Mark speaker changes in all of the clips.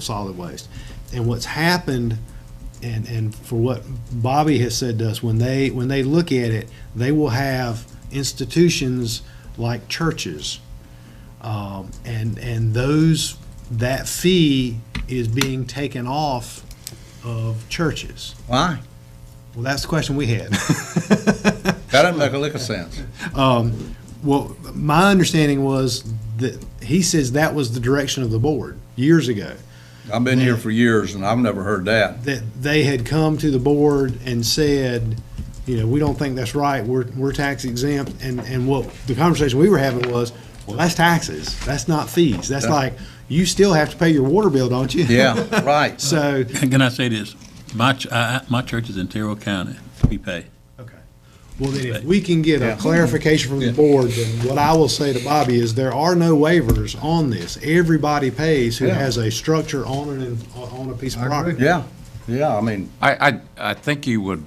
Speaker 1: solid waste. And what's happened, and, and for what Bobby has said to us, when they, when they look at it, they will have institutions like churches. Um, and, and those, that fee is being taken off of churches.
Speaker 2: Why?
Speaker 1: Well, that's the question we had.
Speaker 2: That doesn't make a lick of sense.
Speaker 1: Well, my understanding was that, he says that was the direction of the board years ago.
Speaker 2: I've been here for years and I've never heard that.
Speaker 1: that they had come to the board and said, you know, we don't think that's right, we're, we're tax exempt, and, and what, the conversation we were having was, well, that's taxes, that's not fees, that's
Speaker 2: Yeah.
Speaker 1: like, you still have to pay your water bill, don't you?
Speaker 2: Yeah, right.
Speaker 1: So,
Speaker 3: Can I say this? My, ch- I- I- my church is in Terrell County. We pay.
Speaker 1: okay, well, then if we can get a clarification from the board, then what I will say to Bobby is, there are no waivers on this, everybody pays who
Speaker 2: Yeah.
Speaker 1: has a structure on an, on a piece of property.
Speaker 2: Yeah, yeah, I mean,
Speaker 4: I, I, I think you would,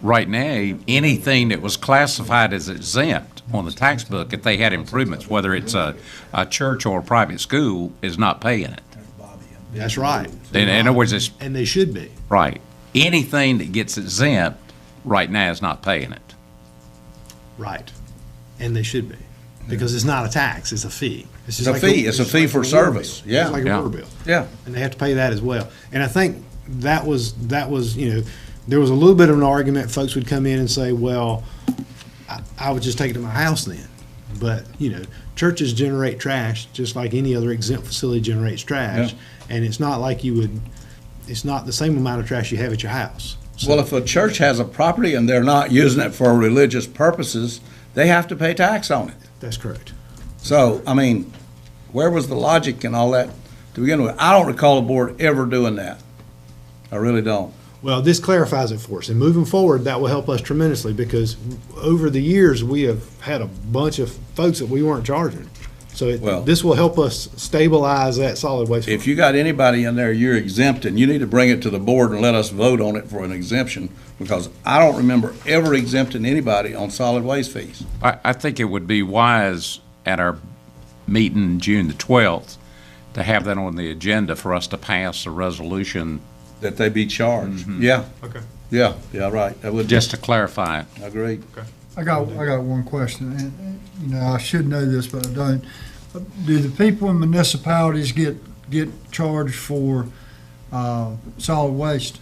Speaker 4: right now, anything that was classified as exempt on the tax book, if they had improvements, whether it's a, a church or a private school, is not paying it.
Speaker 1: That's right.
Speaker 4: In, in other words, it's,
Speaker 1: And they should be.
Speaker 4: right, anything that gets exempt, right now is not paying it.
Speaker 1: Right. And they should be, because it's not a tax, it's a fee. It's just
Speaker 2: a
Speaker 1: like
Speaker 2: fee. It's a
Speaker 1: just
Speaker 2: fee
Speaker 1: like
Speaker 2: for
Speaker 1: a water
Speaker 2: service.
Speaker 1: bill.
Speaker 2: Yeah.
Speaker 1: It's like a
Speaker 4: Yeah.
Speaker 1: water bill.
Speaker 2: yeah,
Speaker 1: And they have to pay that as well. And I think that was, that was, you know, there was a little bit of an argument, folks would come in and say, well, I, I would just take it to my house then. But, you know, churches generate trash, just like any other exempt facility generates trash. And it's not like you would, it's not the same amount of trash you have at your house. So-
Speaker 2: well, if a church has a property and they're not using it for religious purposes, they have to pay tax on it.
Speaker 1: That's correct.
Speaker 2: So, I mean, where was the logic and all that to begin with? I don't recall the board ever doing that. I really don't.
Speaker 1: Well, this clarifies it for us, and moving forward, that will help us tremendously, because over the years, we have had a bunch of folks that we weren't charging. So
Speaker 2: Well-
Speaker 1: it- this will help us stabilize that solid waste.
Speaker 2: If
Speaker 1: fund.
Speaker 2: you got anybody in there, you're exempt, and you need to bring it to the board and let us vote on it for an exemption, because I don't remember ever exempting anybody on solid waste fees.
Speaker 4: I, I think it would be wise at our meeting June the twelfth to have that on the agenda for us to pass a resolution,
Speaker 2: That they be charged. Yeah,
Speaker 1: Mm-hmm. Okay.
Speaker 2: yeah, yeah, right, that would,
Speaker 4: just to clarify it.
Speaker 2: agreed.
Speaker 5: I got, I got one question, and, and, you know, I should know this, but I don't. Do the people in municipalities get, get charged for, uh, solid waste?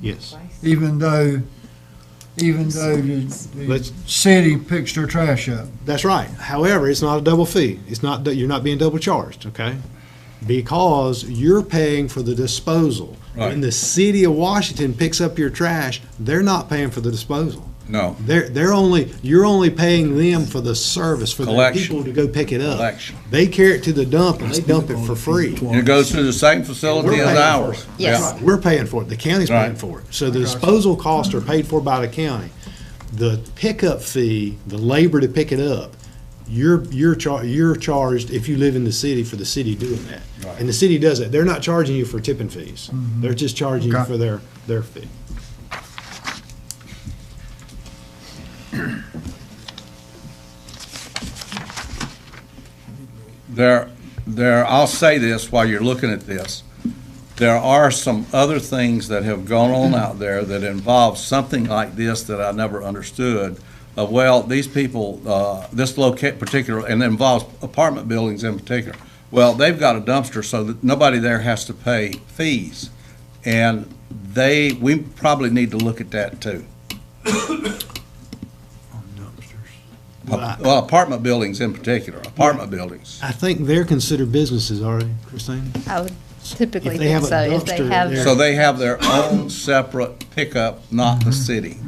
Speaker 1: Yes.
Speaker 5: Even though, even though the,
Speaker 1: Let's-
Speaker 5: the city picks their trash up?
Speaker 1: That's right. However, it's not a double fee. It's not, that you're not being double charged, okay? Because you're paying for the disposal. When
Speaker 2: Right.
Speaker 1: the city of Washington picks up your trash, they're not paying for the disposal.
Speaker 2: No,
Speaker 1: They're, they're only, you're only paying them for the service, for the
Speaker 2: Collection.
Speaker 1: people to go pick it up.
Speaker 2: Collection.
Speaker 1: They carry it to the dump and they dump it for free.
Speaker 2: it goes through the same facility
Speaker 1: We're
Speaker 2: as
Speaker 1: paying
Speaker 2: ours.
Speaker 1: for it.
Speaker 2: Yeah.
Speaker 6: Yes.
Speaker 1: We're paying for it, the county's paying
Speaker 2: Right.
Speaker 1: for it. So the disposal costs are paid for by the county. The pickup fee, the labor to pick it up, you're, you're char, you're charged if you live in the city for the city doing that.
Speaker 2: Right.
Speaker 1: And the city does it. They're not charging you for tipping fees. They're just charging you
Speaker 5: Okay.
Speaker 1: for their, their fee.
Speaker 2: There, there, I'll say this while you're looking at this. There are some other things that have gone on out there that involve something like this that I never understood. Of, well, these people, uh, this locate particular, and it involves apartment buildings in particular. Well, they've got a dumpster so that nobody there has to pay fees. And they, we probably need to look at that too.
Speaker 1: But
Speaker 2: Well, apartment buildings in particular, apartment buildings.
Speaker 1: I think they're considered businesses, are they, Christine?
Speaker 6: I would typically
Speaker 1: If they
Speaker 6: think
Speaker 1: have a
Speaker 6: so. If they
Speaker 1: dumpster
Speaker 6: have,
Speaker 1: there-
Speaker 2: So they have their own separate pickup, not the city.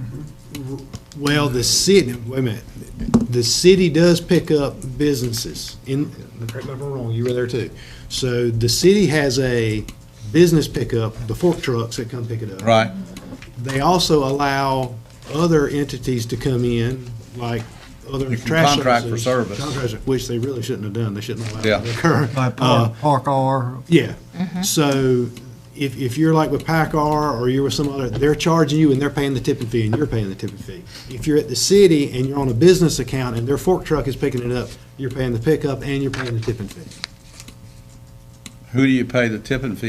Speaker 1: Well, the city, wait a minute, the city does pick up businesses in, correct me if I'm wrong, you were there too. So the city has a business pickup, the fork trucks that come pick it up.
Speaker 2: Right,
Speaker 1: They also allow other entities to come in, like other
Speaker 2: You can
Speaker 1: trash
Speaker 2: contract for
Speaker 1: services,
Speaker 2: service.
Speaker 1: contracts, Which they really shouldn't have done, they shouldn't allow
Speaker 2: Yeah.
Speaker 1: that to occur.
Speaker 5: By
Speaker 1: Uh,
Speaker 5: Park Park R,
Speaker 1: yeah. So if, if you're like with PACCAR or you're with some other, they're charging you and they're paying the tipping fee and you're paying the tipping fee. If you're at the city and you're on a business account and their fork truck is picking it up, you're paying the pickup and you're paying the tipping fee.
Speaker 2: who do you pay the tipping fee